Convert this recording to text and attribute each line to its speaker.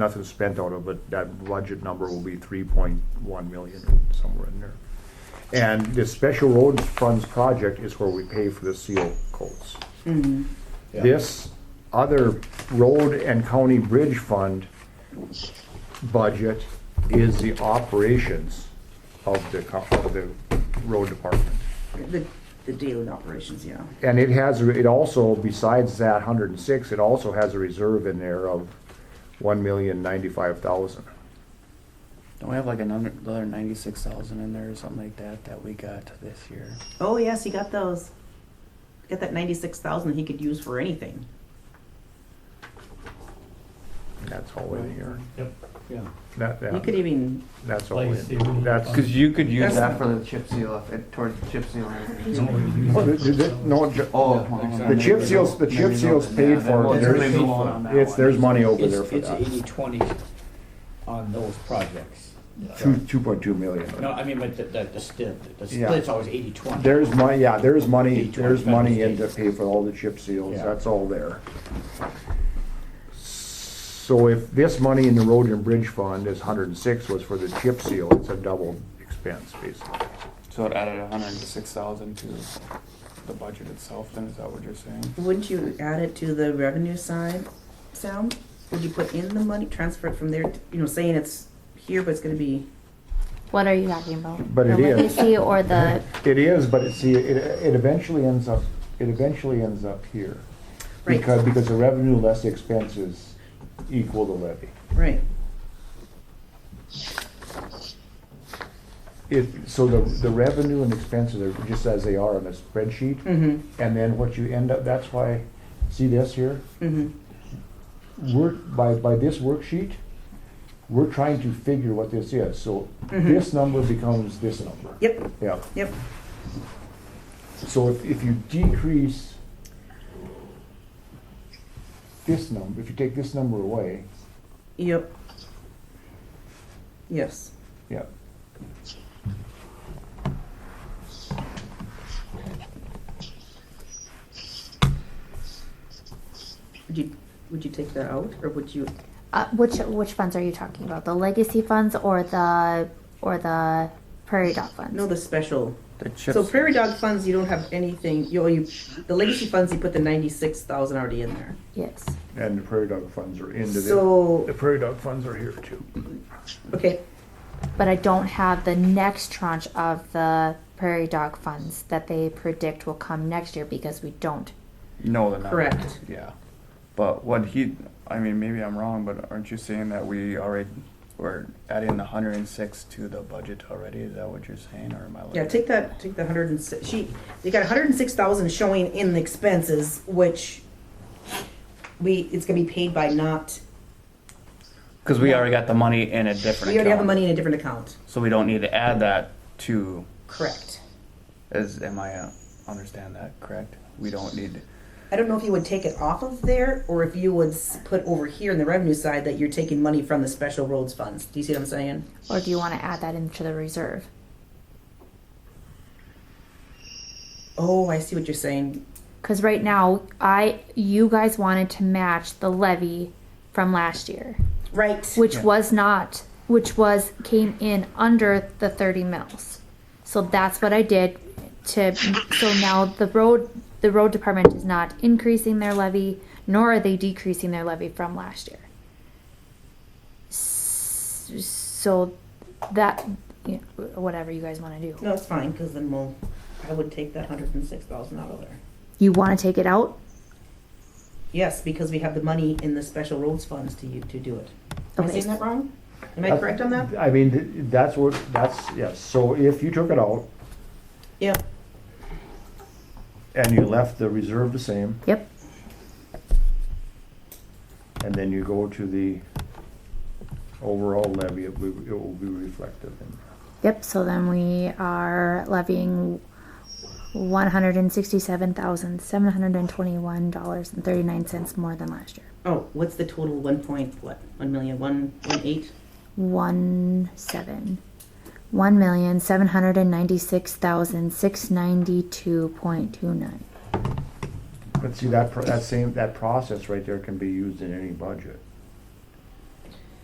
Speaker 1: nothing's spent out of it, that budget number will be three point one million, somewhere in there. And the special roads funds project is where we pay for the seal coats.
Speaker 2: Yeah.
Speaker 1: This other road and county bridge fund budget is the operations of the, co- of the road department.
Speaker 3: The, the daily operations, yeah.
Speaker 1: And it has, it also, besides that hundred and six, it also has a reserve in there of one million ninety-five thousand.
Speaker 4: Don't we have like another another ninety-six thousand in there or something like that that we got this year?
Speaker 3: Oh, yes, he got those. Got that ninety-six thousand he could use for anything.
Speaker 1: That's all in here.
Speaker 2: Yep, yeah.
Speaker 1: That,
Speaker 3: He
Speaker 1: that,
Speaker 3: could even,
Speaker 1: that's all
Speaker 2: Place the-
Speaker 1: in. That's,
Speaker 5: Because you could use that
Speaker 3: That's-
Speaker 5: for the chip seal, if it, towards the chip seal.
Speaker 1: Oh, the- the- the- no, ju-
Speaker 5: Oh,
Speaker 1: The chip seals- the chip seals paid for it. There's- it's, there's money over there
Speaker 6: It's,
Speaker 1: for
Speaker 6: it's
Speaker 1: that.
Speaker 6: eighty twenty on those projects.
Speaker 1: Two, two point two million.
Speaker 6: No, I mean, but the, the, the split, the
Speaker 1: Yeah.
Speaker 6: split's always eighty twenty.
Speaker 1: There's money, yeah, there's money,
Speaker 6: Eight,
Speaker 1: there's
Speaker 6: twenty-five,
Speaker 1: money in
Speaker 6: eight.
Speaker 1: to pay for all the chip seals,
Speaker 6: Yeah.
Speaker 1: that's all there. So if this money in the road and bridge fund is hundred and six was for the chip seal, it's a double expense basically.
Speaker 4: So it added a hundred and six thousand to the budget itself, then is that what you're saying?
Speaker 3: wouldn't you add it to the revenue side, Sam? Would you put in the money, transfer it from there, to- you know, saying it's here, but it's gonna be,
Speaker 7: What are you talking about?
Speaker 1: But
Speaker 7: the
Speaker 1: it is.
Speaker 7: legacy or the
Speaker 1: It is, but it, see, it, it eventually ends up, it eventually ends up here.
Speaker 3: Right.
Speaker 1: Because, because the revenue less the expenses equal the levy.
Speaker 3: right,
Speaker 1: It, so the, the revenue and expenses are just as they are on a spreadsheet.
Speaker 3: Mm. mm-hmm,
Speaker 1: And then what you end up, that's why, see this here?
Speaker 3: mm-hmm.
Speaker 1: We're, by, by this worksheet, we're trying to figure what this is, so this number becomes this number.
Speaker 3: Mm-hmm. yep,
Speaker 1: Yeah,
Speaker 3: yep,
Speaker 1: so if, if you decrease this number, if you take this number away,
Speaker 3: yep. Yes,
Speaker 1: yeah.
Speaker 3: would you, would you take that out, or would you,
Speaker 7: uh, which which funds are you talking about? The legacy funds or the or the prairie dog funds?
Speaker 3: no, the special?
Speaker 4: The chip
Speaker 3: So prairie dog funds, you don't have anything, you, you, the legacy funds, you put the ninety-six thousand already in there.
Speaker 7: yes.
Speaker 1: And the prairie dog funds are into the,
Speaker 3: So,
Speaker 1: the prairie dog funds are here too.
Speaker 3: okay,
Speaker 7: But I don't have the next tranche of the prairie dog funds that they predict will come next year because we don't.
Speaker 4: No, the number.
Speaker 3: Correct.
Speaker 4: Yeah, but what he, I mean, maybe I'm wrong, but aren't you saying that we already, we're adding the hundred and six to the budget already? Is that what you're saying, or am I?
Speaker 3: yeah, take that, take the hundred and six, she, you got hundred and six thousand showing in the expenses, which we, it's gonna be paid by not,
Speaker 4: Because we already got the money in a different.
Speaker 3: we already have the
Speaker 4: account,
Speaker 3: money in a different account.
Speaker 4: So we don't need to add that to,
Speaker 3: Correct.
Speaker 4: as, am I, uh, understand that correct? We don't need,
Speaker 3: I don't know if you would take it off of there, or if you would s- put over here in the revenue side that you're taking money from the special roads funds, do you see what I'm saying?
Speaker 7: Or do you want to add that into the reserve?
Speaker 3: Oh, I see what you're saying,
Speaker 7: Because right now, I you guys wanted to match the levy from last year,
Speaker 3: right,
Speaker 7: which was not, which was came in under the thirty mils. So that's what I did. To so now the road the road department is not increasing their levy, nor are they decreasing their levy from last year. S- So that you know, whatever you guys want to do,
Speaker 3: no, it's fine, cause then we'll, I would take that hundred and six thousand out of there.
Speaker 7: you want to take it out.
Speaker 3: Yes, because we have the money in the special roads funds to you, to do it. Am I
Speaker 7: Okay.
Speaker 3: saying that wrong? Am I correct on that?
Speaker 1: I mean, th- that's what, that's, yes, so if you took it out
Speaker 3: Yeah.
Speaker 1: and you left the reserve the same,
Speaker 7: Yep.
Speaker 1: and then you go to the overall levy, it will, it will be reflective in
Speaker 7: Yep, so then we are levying one hundred and sixty-seven thousand, seven hundred and twenty-one dollars and thirty-nine cents more than last year.
Speaker 3: Oh, what's the total, one point, what, one million, one, one eight?
Speaker 7: One seven, one million, seven hundred and ninety-six thousand, six ninety-two point two nine.
Speaker 1: But see, that, pro- that same, that process right there can be used in any budget.